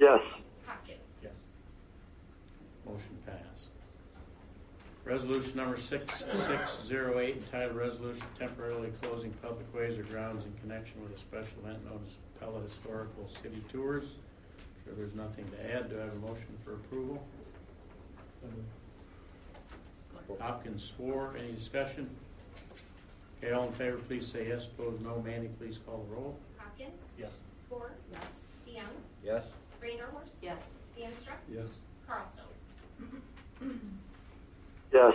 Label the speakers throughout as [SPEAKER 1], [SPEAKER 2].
[SPEAKER 1] Yes.
[SPEAKER 2] Hopkins.
[SPEAKER 3] Yes. Motion passed. Resolution number 6608, entitled Resolution Temporarily Closing Public Ways or Grounds in Connection with a Special Event Known as Pella Historical City Tours. Sure there's nothing to add. Do I have a motion for approval? Hopkins swore. Any discussion? Okay, all in favor, please say yes. Opposed, no. Mandy, please call the roll.
[SPEAKER 2] Hopkins.
[SPEAKER 4] Yes.
[SPEAKER 2] Score.
[SPEAKER 5] Yes.
[SPEAKER 2] DeYoung.
[SPEAKER 4] Yes.
[SPEAKER 2] Reindeerhorst.
[SPEAKER 5] Yes.
[SPEAKER 2] DeAnstruck.
[SPEAKER 4] Yes.
[SPEAKER 2] Carlstone.
[SPEAKER 1] Yes.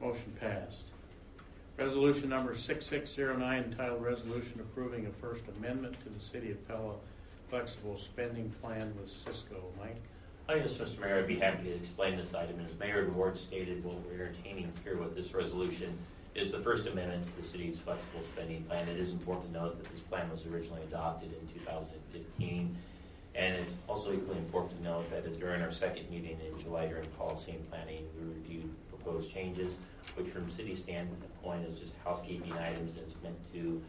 [SPEAKER 3] Motion passed. Resolution number 6609, entitled Resolution Approving a First Amendment to the City of Pella Flexible Spending Plan with Cisco. Mike?
[SPEAKER 6] Hi, yes, Mr. Mayor, I'd be happy to explain this item. As Mayor Ward stated, what we're entertaining here with this resolution is the First Amendment to the city's flexible spending plan. It is important to note that this plan was originally adopted in 2015. And it's also equally important to note that during our second meeting in July during policy and planning, we reviewed proposed changes, which from city standpoint is just housekeeping items that's meant to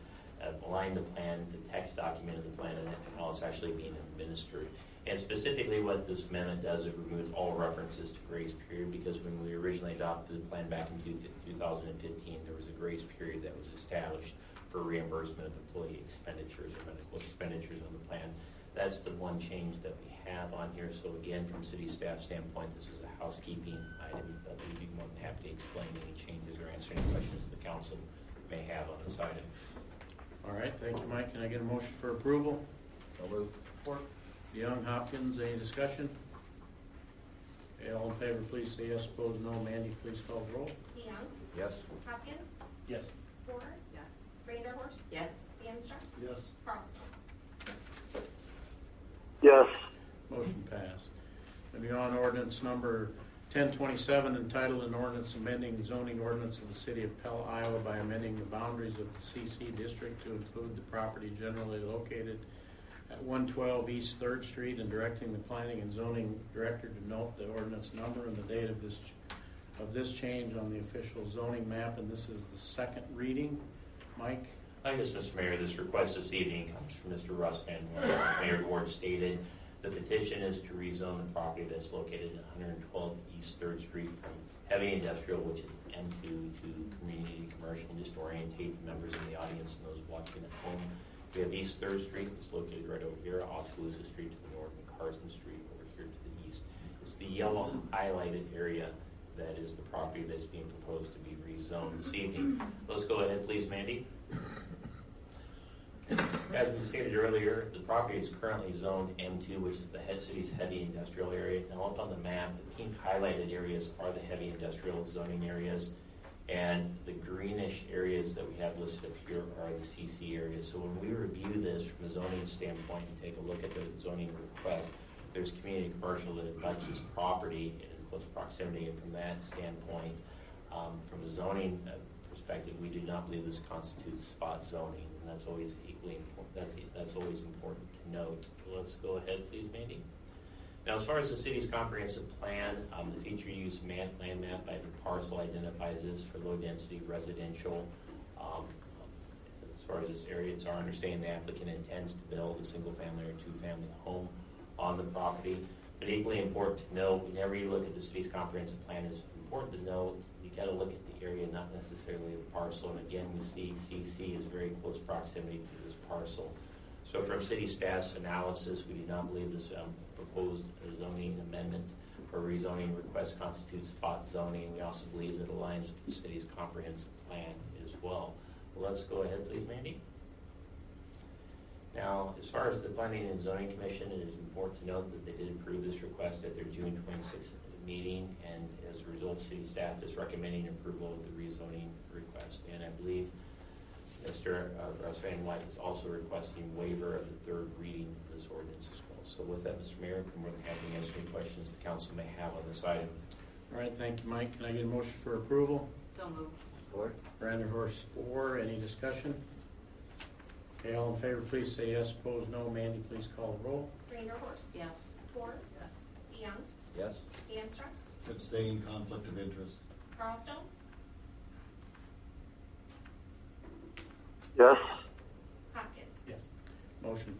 [SPEAKER 6] uh, align the plan, the text document of the plan, and how it's actually being administered. And specifically, what this amendment does, it removes all references to grace period, because when we originally adopted the plan back in two- 2015, there was a grace period that was established for reimbursement of employee expenditures or medical expenditures on the plan. That's the one change that we have on here. So again, from city staff standpoint, this is a housekeeping item, but we'd be more than happy to explain any changes or answer any questions the council may have on this item.
[SPEAKER 3] All right, thank you, Mike. Can I get a motion for approval?
[SPEAKER 4] So moved.
[SPEAKER 3] Young, Hopkins, any discussion? Okay, all in favor, please say yes. Opposed, no. Mandy, please call the roll.
[SPEAKER 2] DeYoung.
[SPEAKER 4] Yes.
[SPEAKER 2] Hopkins.
[SPEAKER 4] Yes.
[SPEAKER 2] Score.
[SPEAKER 5] Yes.
[SPEAKER 2] Reindeerhorst.
[SPEAKER 5] Yes.
[SPEAKER 2] DeAnstruck.
[SPEAKER 4] Yes.
[SPEAKER 2] Carlstone.
[SPEAKER 1] Yes.
[SPEAKER 3] Motion passed. Moving on, ordinance number 1027, entitled an ordinance amending zoning ordinance of the city of Pella, Iowa by amending the boundaries of the CC district to include the property generally located at 112 East Third Street and directing the planning and zoning director to note the ordinance number and the date of this, ch- of this change on the official zoning map, and this is the second reading. Mike?
[SPEAKER 6] I guess, Mr. Mayor, this request this evening comes from Mr. Russ Van Horn. Mayor Ward stated the petition is to rezone the property that's located at 112 East Third Street from heavy industrial, which is M2, to community commercial, just to orientate the members in the audience and those watching at home. We have East Third Street that's located right over here, Oskaloosa Street to the north, and Carson Street over here to the east. It's the yellow highlighted area that is the property that's being proposed to be rezoned this evening. Let's go ahead, please, Mandy. As we stated earlier, the property is currently zoned M2, which is the head city's heavy industrial area. Now up on the map, the pink highlighted areas are the heavy industrial zoning areas. And the greenish areas that we have listed up here are the CC areas. So when we review this from a zoning standpoint and take a look at the zoning request, there's community commercial that abuts this property in close proximity. And from that standpoint, um, From a zoning uh, perspective, we do not believe this constitutes spot zoning, and that's always equally important, that's, that's always important to note. Let's go ahead, please, Mandy. Now, as far as the city's comprehensive plan, um, the feature use man, land map by the parcel identifies this for low-density residential. Um, As far as this area, it's our understanding the applicant intends to build a single-family or two-family home on the property. But equally important to note, whenever you look at the city's comprehensive plan, it's important to note, you gotta look at the area, not necessarily the parcel. And again, we see CC is very close proximity to this parcel. So from city staff's analysis, we do not believe this um, proposed zoning amendment for rezoning request constitutes spot zoning. We also believe it aligns with the city's comprehensive plan as well. Let's go ahead, please, Mandy. Now, as far as the Planning and Zoning Commission, it is important to note that they did approve this request at their June 26th meeting, and as a result, city staff is recommending approval of the rezoning request. And I believe Mr. uh, Russ Van Wyk is also requesting waiver of the third reading of this ordinance as well. So with that, Mr. Mayor, I'm more than happy to answer any questions the council may have on this item.
[SPEAKER 3] All right, thank you, Mike. Can I get a motion for approval?
[SPEAKER 5] So moved.
[SPEAKER 4] Score?
[SPEAKER 3] Brander Horace Orr, any discussion? Okay, all in favor, please say yes, opposed no. Mandy, please call the roll.
[SPEAKER 2] Reindeerhorst.
[SPEAKER 5] Yes.
[SPEAKER 2] Score.
[SPEAKER 5] Yes.
[SPEAKER 2] DeYoung.
[SPEAKER 4] Yes.
[SPEAKER 2] DeAnstruck.
[SPEAKER 7] Abstain, conflict of interest.
[SPEAKER 2] Carlstone.
[SPEAKER 1] Yes.
[SPEAKER 2] Hopkins.
[SPEAKER 3] Motion